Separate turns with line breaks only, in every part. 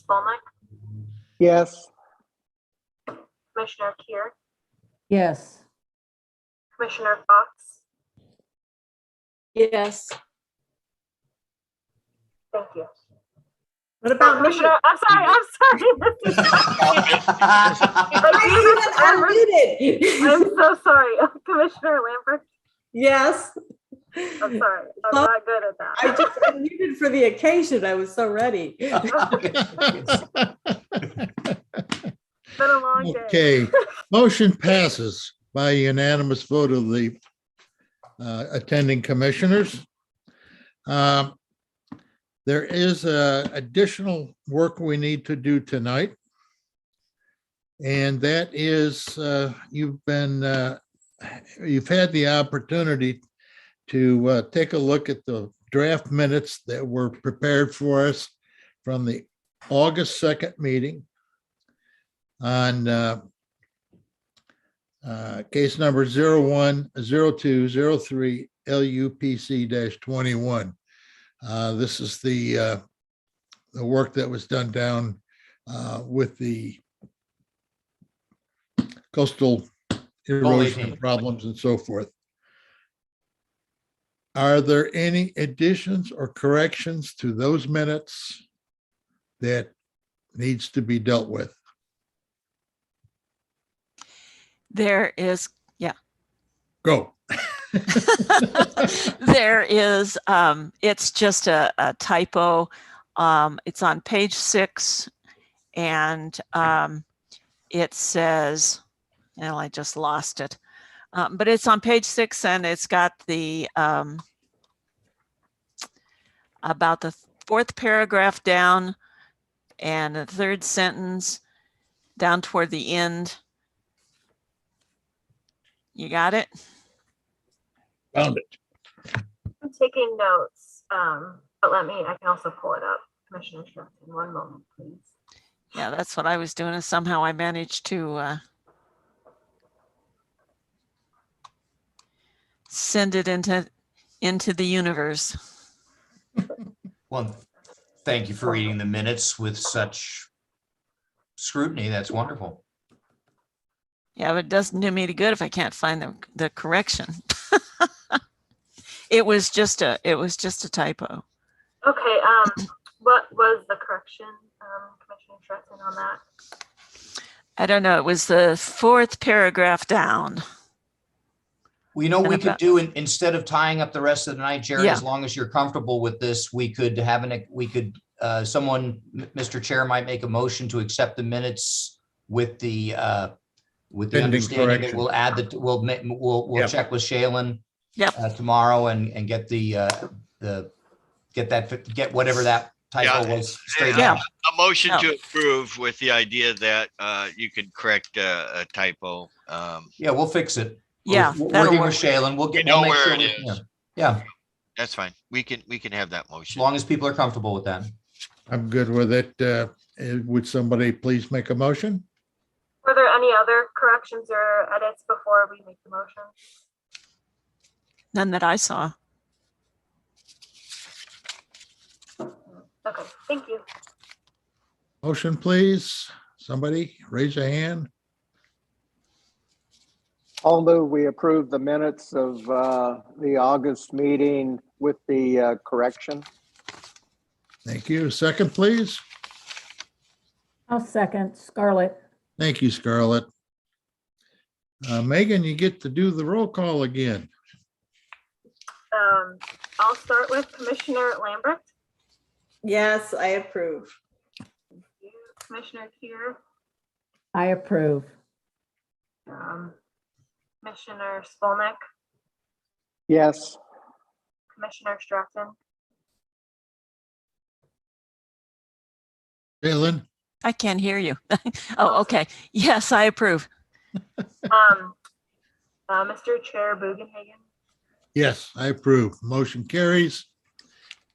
Skolnick,
Yes.
Commissioner Kier,
Yes.
Commissioner Fox.
Yes.
Thank you.
What
Oh,
about me?
Commissioner, I'm sorry, I'm sorry. This is- I do this every-
Unmuted.
I'm so sorry. Commissioner Lambert,
Yes,
I'm sorry. I'm not good at
I
that.
just unmuted for the occasion. I was so ready.
It's been a long day.
Okay, motion passes by unanimous vote of the uh, attending commissioners. Um, There is uh, additional work we need to do tonight. And that is, uh, you've been, uh, you've had the opportunity to uh, take a look at the draft minutes that were prepared for us from the August 2nd meeting on uh, uh, case number 010203 LUPC-21. Uh, This is the, uh, the work that was done down uh, with the coastal erosion
Coalition.
problems and so forth. Are there any additions or corrections to those minutes that needs to be dealt with?
There is,
Go.
there is, um, it's just a, a typo. Um, it's on page six and, um, it says, well, I just lost it. Um, but it's on page six and it's got the, um, about the fourth paragraph down and the third sentence down toward the end. You got it?
Found it.
I'm taking notes, um, but let me, I can also pull it up. Commissioner Shrimpton, one moment, please.
Yeah, that's what I was doing, and somehow I managed to uh, send it into into the universe.
Well, thank you for reading the minutes with such scrutiny. That's wonderful.
Yeah, but it doesn't do me any good if I can't find the the correction. it was just a it was just a typo.
Okay, um, what was the correction, um, Commissioner Shrimpton on that?
I don't know. It was the fourth paragraph down.
Well, you know,
And
we could
about-
do, in- instead of tying up the rest of the night, Jerry,
Yeah.
as long as you're comfortable with this, we could have an, we could, uh, someone, M- Mr. Chair might make a motion to accept the minutes with the, uh, with the
Pending
understanding that
correction.
we'll add that, we'll, ma- we'll, we'll
Yep.
check with Shailen
Yep.
uh, tomorrow and, and get the, uh, the, get that, fi- get whatever that typo
Yeah.
was straightened
Yeah.
out.
A motion
No.
to approve with the idea that uh, you could correct uh, a typo. um,
Yeah, we'll fix it. We're-
Yeah,
we're
that'll
Working with
work.
Shailen, we'll get.
We know
we'll make
where
sure
it
we-
is.
yeah. Yeah,
That's fine. We can, we can have that
as
motion.
long as people are comfortable with that.
I'm good with it. Uh, eh, Would somebody please make a motion?
Were there any other corrections or edits before we make the motion?
None that I saw.
Okay, thank you.
Motion, please. Somebody raise a hand.
I'll move we approve the minutes of uh, the August meeting with the uh, correction.
Thank you. Second, please.
I'll second Scarlett.
Thank you, Scarlett. Uh, Megan, you get to do the roll call again.
Um, I'll start with Commissioner Lambert,
Yes, I approve.
Commissioner Kier,
I approve.
um, Commissioner Skolnick,
Yes.
Commissioner Stratton,
Jalen,
I can't hear you. oh, okay. Yes, I approve.
um, uh, Mr. Chair Bugenhagen,
yes, I approve. Motion carries.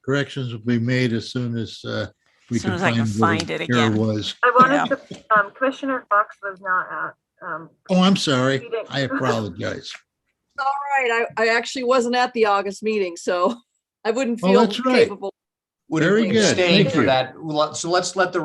Corrections will be made as soon as uh, we
As soon
can
as I can
find where
find it
the error
again.
was.
I wanted to, um, Commissioner Fox was not at, um,
Oh, I'm sorry.
You didn't.
I apologize.
All right, I, I actually wasn't at the August meeting, so I wouldn't
Oh,
feel
that's right.
capable
Would
Very good.
abstain
Thank
for
you.
that. Well, So let's let the